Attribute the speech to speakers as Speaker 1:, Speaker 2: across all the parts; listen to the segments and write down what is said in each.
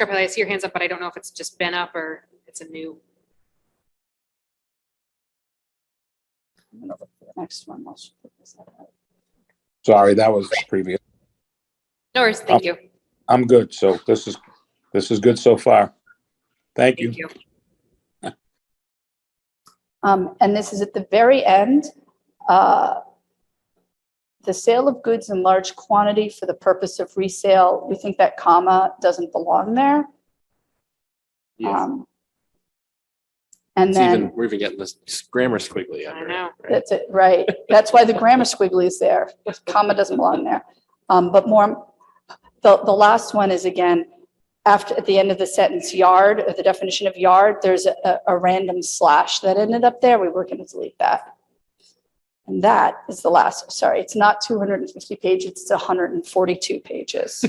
Speaker 1: Beverly, I see your hands up, but I don't know if it's just been up or it's a new.
Speaker 2: I'm gonna look for the Next one. I'll just put this up.
Speaker 3: Sorry, that was previous.
Speaker 1: No worries, thank you.
Speaker 3: I'm good, so this is, this is good so far. Thank you.
Speaker 1: Thank you.
Speaker 2: Um, and this is at the very end. uh, The sale of goods in large quantity for the purpose of resale, we think that comma doesn't belong there.
Speaker 4: Yeah,
Speaker 2: Um, And
Speaker 4: it's
Speaker 2: then,
Speaker 4: even, we're even getting this grammar squiggly
Speaker 1: I
Speaker 4: under it.
Speaker 1: know.
Speaker 4: right?
Speaker 2: that's it, right. That's why the grammar squiggly is there. Comma doesn't belong there. Um, but more, the, the last one is again, after, at the end of the sentence, yard, or the definition of yard, there's a- a, a random slash that ended up there. We were going to delete that. And that is the last, sorry, it's not 250 pages, it's 142 pages.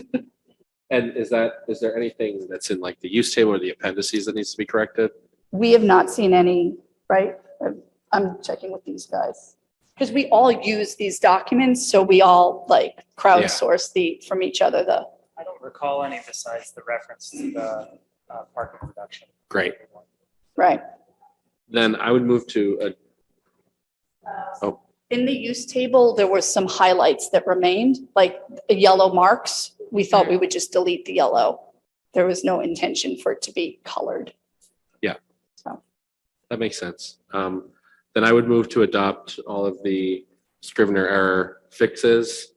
Speaker 4: And is that, is there anything that's in like the use table or the appendices that needs to be corrected?
Speaker 2: We have not seen any, right? I'm- I'm checking with these guys. Because we all use these documents, so we all like crowdsource the, from each other, the,
Speaker 5: I don't recall any besides the reference to the uh, parking reduction.
Speaker 4: Great.
Speaker 2: right?
Speaker 4: Then I would move to, uh, Oh.
Speaker 2: In the use table, there were some highlights that remained, like the yellow marks. We thought we would just delete the yellow. There was no intention for it to be colored.
Speaker 4: that makes sense. Um, then I would move to adopt all of the Scrivener error fixes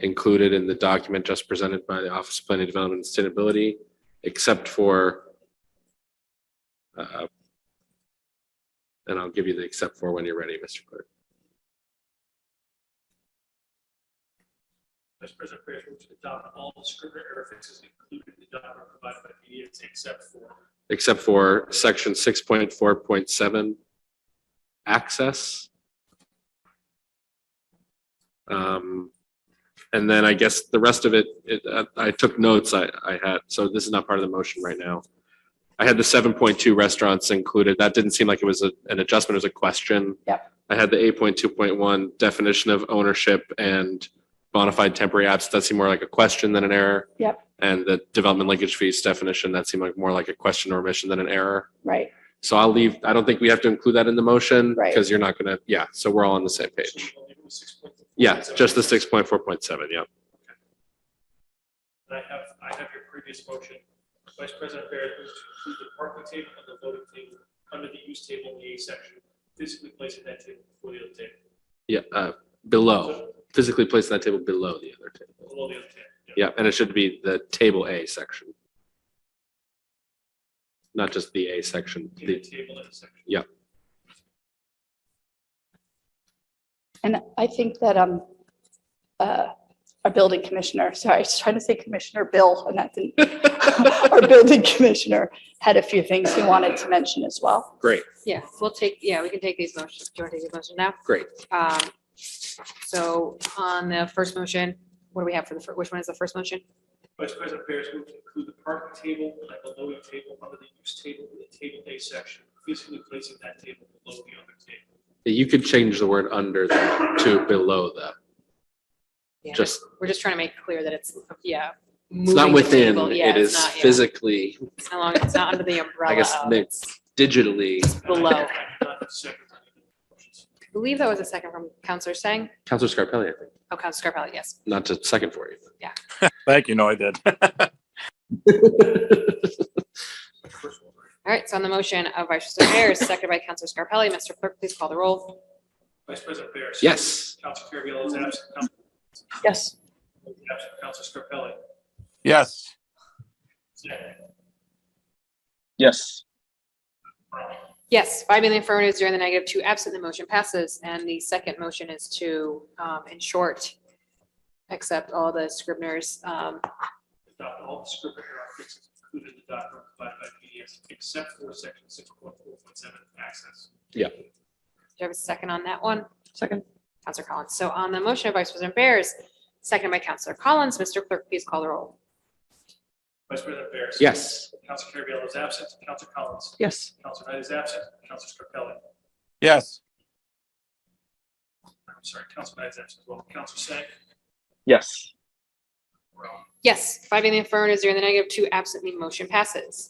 Speaker 4: included in the document just presented by the Office of Planning Development and Sustainability, except for uh, and I'll give you the except for when you're ready, Mr. Clerk.
Speaker 6: Vice President Frazier to adopt all the scrivener error fixes included in the document provided by PDS except for
Speaker 4: except for section six point four point seven, access. Um, and then I guess the rest of it, it, uh, I took notes I, I had, so this is not part of the motion right now. I had the seven point two restaurants included. That didn't seem like it was a- an adjustment, it was a question.
Speaker 2: Yep.
Speaker 4: I had the eight point two point one definition of ownership and bona fide temporary apps. That seemed more like a question than an error.
Speaker 2: Yep.
Speaker 4: And the development linkage fees definition, that seemed like more like a question or omission than an error.
Speaker 2: Right,
Speaker 4: So I'll leave, I don't think we have to include that in the motion.
Speaker 2: Right.
Speaker 4: Because you're not gonna, yeah, so we're all on the same page. Yeah, just the six point four point seven, yeah.
Speaker 6: And I have, I have your previous motion. Vice President Barrett moves to include the parking table and the voting table under the use table in the A section, physically placing that table before the other table.
Speaker 4: Yeah, uh, below,
Speaker 6: So,
Speaker 4: physically placing that table below the other table.
Speaker 6: Below the other table.
Speaker 4: Yeah, and it should be the table A section. Not just the A section,
Speaker 6: In the
Speaker 4: the,
Speaker 6: table in the section.
Speaker 2: and I think that, um, uh, our building commissioner, sorry, I was trying to say Commissioner Bill, and that didn't. Our building commissioner had a few things he wanted to mention as well.
Speaker 4: great,
Speaker 1: Yeah, we'll take, yeah, we can take these motions. Do you want to take these motions now?
Speaker 4: great.
Speaker 1: Um, so on the first motion, what do we have for the, fir- which one is the first motion?
Speaker 6: Vice President Barrett moves to include the parking table and the voting table under the use table in the table A section, physically placing that table below the other table.
Speaker 4: You could change the word under that to below that.
Speaker 1: Yeah,
Speaker 4: Just,
Speaker 1: We're just trying to make clear that it's, yeah.
Speaker 4: it's
Speaker 1: moving
Speaker 4: not
Speaker 1: the
Speaker 4: within,
Speaker 1: table. Yeah,
Speaker 4: it
Speaker 1: it's
Speaker 4: is
Speaker 1: not, yeah.
Speaker 4: physically,
Speaker 1: It's not long- It's not under the umbrella
Speaker 4: I guess,
Speaker 1: of-
Speaker 4: mixed digitally.
Speaker 1: Below.
Speaker 6: I have not seconded any motions.
Speaker 1: I believe that was a second from Counselor Sang.
Speaker 4: Counselor Scarpelli, I think,
Speaker 1: Oh, Counselor Scarpelli, yes.
Speaker 4: not to second for you.
Speaker 7: Thank you, no, I did.
Speaker 1: All right, so on the motion of Vice President Ayers, seconded by Counselor Scarpelli, Mr. Clerk, please call the roll.
Speaker 6: Vice President Barrett.
Speaker 4: Yes,
Speaker 6: Council Carviallo is absent. Council
Speaker 2: Yes.
Speaker 6: is absent. Council Scarpelli.
Speaker 7: Yes.
Speaker 6: Zach.
Speaker 7: Yes.
Speaker 1: Yes, five in the affirmative, zero in the negative, two absent, the motion passes. And the second motion is to, um, in short, accept all the Scribner's, um,
Speaker 6: Adopt all the script error fixes included in the document provided by PDS except for section six point four point seven access.
Speaker 1: Do you have a second on that one? Second. Counselor Collins. So on the motion of Vice President Bears, second by Counselor Collins, Mr. Clerk, please call the roll.
Speaker 6: Vice President Barrett.
Speaker 4: yes.
Speaker 6: Council Carviallo is absent. Council Collins.
Speaker 7: Yes.
Speaker 6: Council Knight is absent. Council Scarpelli.
Speaker 7: Yes.
Speaker 6: I'm sorry, Council Knight is absent as well. Council Sang.
Speaker 7: Yes.
Speaker 1: Yes, five in the affirmative, zero in the negative, two absent, the motion passes.